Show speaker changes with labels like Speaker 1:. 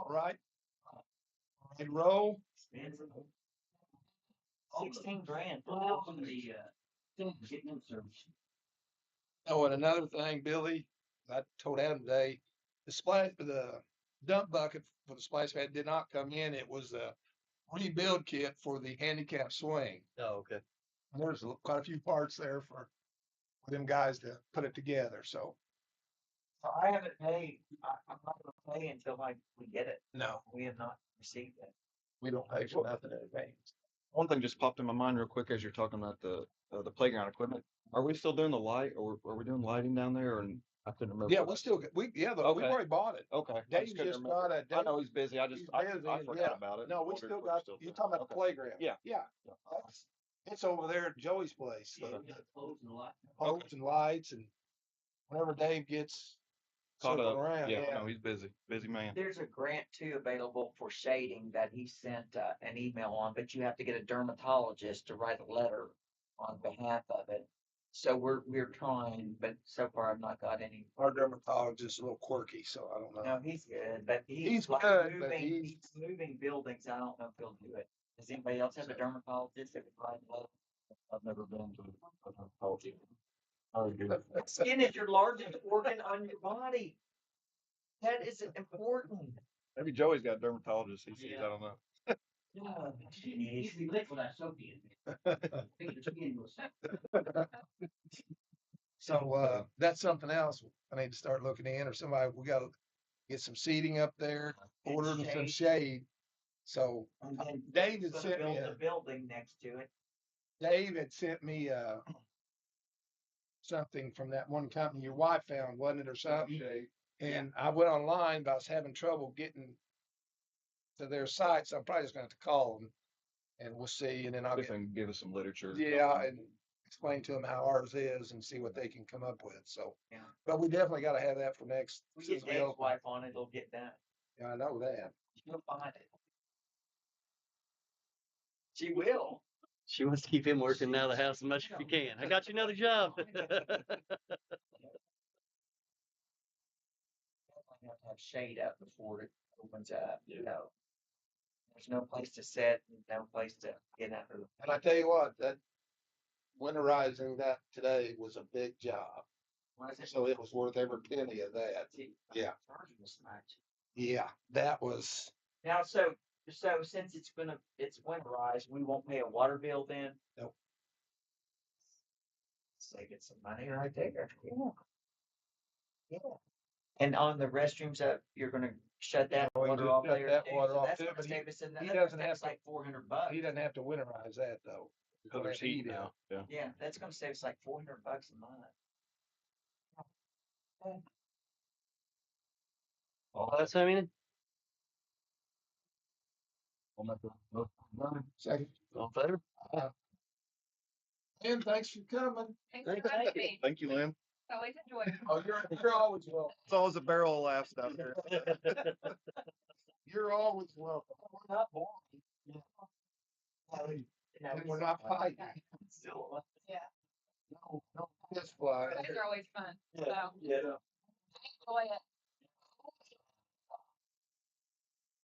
Speaker 1: All right. And roll.
Speaker 2: Sixteen grand.
Speaker 3: Wow.
Speaker 2: On the, uh, getting in service.
Speaker 1: Oh, and another thing, Billy, I told Adam today, the splash, the dump bucket for the splash pad did not come in. It was a rebuild kit for the handicap swing.
Speaker 4: Oh, okay.
Speaker 1: And There's a- quite a few parts there for for them guys to put it together, so
Speaker 2: So I haven't paid, I, I'm not gonna pay until like we get it.
Speaker 1: no,
Speaker 2: We have not received it.
Speaker 1: we don't pay for nothing in advance.
Speaker 4: One thing just popped in my mind real quick as you're talking about the, uh, the playground equipment. Are we still doing the light or are we doing lighting down there or? I couldn't remember.
Speaker 1: Yeah, we still, get we, yeah, the- we've
Speaker 4: Okay.
Speaker 1: already bought it.
Speaker 4: Okay. I
Speaker 1: Dave's
Speaker 4: just couldn't
Speaker 1: just
Speaker 4: remember.
Speaker 1: got a,
Speaker 4: I
Speaker 1: Dave-
Speaker 4: know he's busy. I just,
Speaker 1: he's
Speaker 4: I
Speaker 1: busy,
Speaker 4: I
Speaker 1: yeah.
Speaker 4: forgot about it.
Speaker 1: no, we
Speaker 4: Wondered
Speaker 1: still
Speaker 4: if
Speaker 1: got,
Speaker 4: still
Speaker 1: you're
Speaker 4: doing
Speaker 1: talking
Speaker 4: it.
Speaker 1: about the
Speaker 4: Okay.
Speaker 1: playground.
Speaker 4: Yeah.
Speaker 1: Yeah.
Speaker 4: Yeah.
Speaker 1: That's- It's over there at Joey's place.
Speaker 2: Yeah,
Speaker 1: so-
Speaker 2: we got clothes and a lot.
Speaker 1: posts and lights and whenever Dave gets
Speaker 4: Caught
Speaker 1: circled
Speaker 4: up.
Speaker 1: around,
Speaker 4: Yeah,
Speaker 1: yeah.
Speaker 4: no, he's busy, busy man.
Speaker 2: There's a grant too available for shading that he sent uh, an email on, but you have to get a dermatologist to write a letter on behalf of it. So we're, we're trying, but so far I've not got any.
Speaker 1: Our dermatologist is a little quirky, so I don't know.
Speaker 2: No, he's good, but
Speaker 1: He's
Speaker 2: he's like
Speaker 1: good, but
Speaker 2: moving,
Speaker 1: he's-
Speaker 2: he's moving buildings. I don't know if he'll do it. Does anybody else have a dermatologist that would write a letter?
Speaker 4: I've never been to a dermatology. Oh, good.
Speaker 2: Skin is your largest organ on your body. That is important.
Speaker 4: Maybe Joey's got dermatologists. He sees,
Speaker 2: Yeah.
Speaker 4: I don't know.
Speaker 2: No, you be licked without soap in.
Speaker 1: So, uh, that's something else I need to start looking in or somebody, we gotta get some seating up there,
Speaker 2: And
Speaker 1: order them some
Speaker 2: shade.
Speaker 1: shade. So
Speaker 2: And then
Speaker 1: Dave
Speaker 2: he's
Speaker 1: had
Speaker 2: gonna
Speaker 1: sent me,
Speaker 2: build
Speaker 1: a-
Speaker 2: a building next to it.
Speaker 1: Dave had sent me, uh, something from that one company your wife found, wasn't it, or something? And I went online, but I was having trouble getting to their site, so I'm probably just gonna have to call them. And we'll see, and then I'll
Speaker 4: If
Speaker 1: get,
Speaker 4: they can give us some literature.
Speaker 1: yeah, and explain to them how ours is and see what they can come up with, so.
Speaker 2: Yeah.
Speaker 1: But we definitely gotta have that for next.
Speaker 2: We
Speaker 1: since
Speaker 2: get
Speaker 1: we
Speaker 2: Dave's
Speaker 1: open.
Speaker 2: wife on it, it'll get done.
Speaker 1: Yeah, I know that.
Speaker 2: She'll find it. She will.
Speaker 5: She wants to keep him working out of the house as much as she can. I got you another job.
Speaker 2: Definitely have to have shade up before it opens up, you know. There's no place to sit, no place to get out of.
Speaker 1: And I tell you what, that winterizing that today was a big job,
Speaker 2: Why is it-
Speaker 1: so it was worth every penny of that. Yeah.
Speaker 2: Charging this much.
Speaker 1: Yeah, that was,
Speaker 2: Now, so, so since it's gonna, it's winterized, we won't pay a water bill then?
Speaker 1: Nope.
Speaker 2: Saving some money right there, yeah. Yeah. And on the restrooms, uh, you're gonna shut that
Speaker 1: we
Speaker 2: water
Speaker 1: Oh, just
Speaker 2: off
Speaker 1: shut
Speaker 2: there?
Speaker 1: that
Speaker 2: too,
Speaker 1: water
Speaker 2: so
Speaker 1: off
Speaker 2: that's
Speaker 1: too,
Speaker 2: gonna
Speaker 1: but he-
Speaker 2: save us an-
Speaker 1: he
Speaker 2: that-
Speaker 1: doesn't
Speaker 2: That's
Speaker 1: have to-
Speaker 2: like four hundred bucks.
Speaker 1: he doesn't have to winterize that though.
Speaker 4: Cause there's heat now. Yeah.
Speaker 2: Yeah, that's gonna save us like four hundred bucks a month.
Speaker 5: All that's how many?
Speaker 4: I'll make a motion.
Speaker 1: Second,
Speaker 5: All in favor?
Speaker 1: Tim, thanks for coming.
Speaker 6: Thanks for having me.
Speaker 4: Thank you, Lynn.
Speaker 6: It's always enjoyable.
Speaker 1: Oh, you're, you're always welcome.
Speaker 4: It's always a barrel of laughs down there.
Speaker 1: You're always welcome.
Speaker 2: We're not boring. No,
Speaker 1: And we're not fighting. No,
Speaker 2: still-
Speaker 1: no, that's why.
Speaker 6: Guys are always fun. So
Speaker 2: Yeah.
Speaker 6: enjoy it.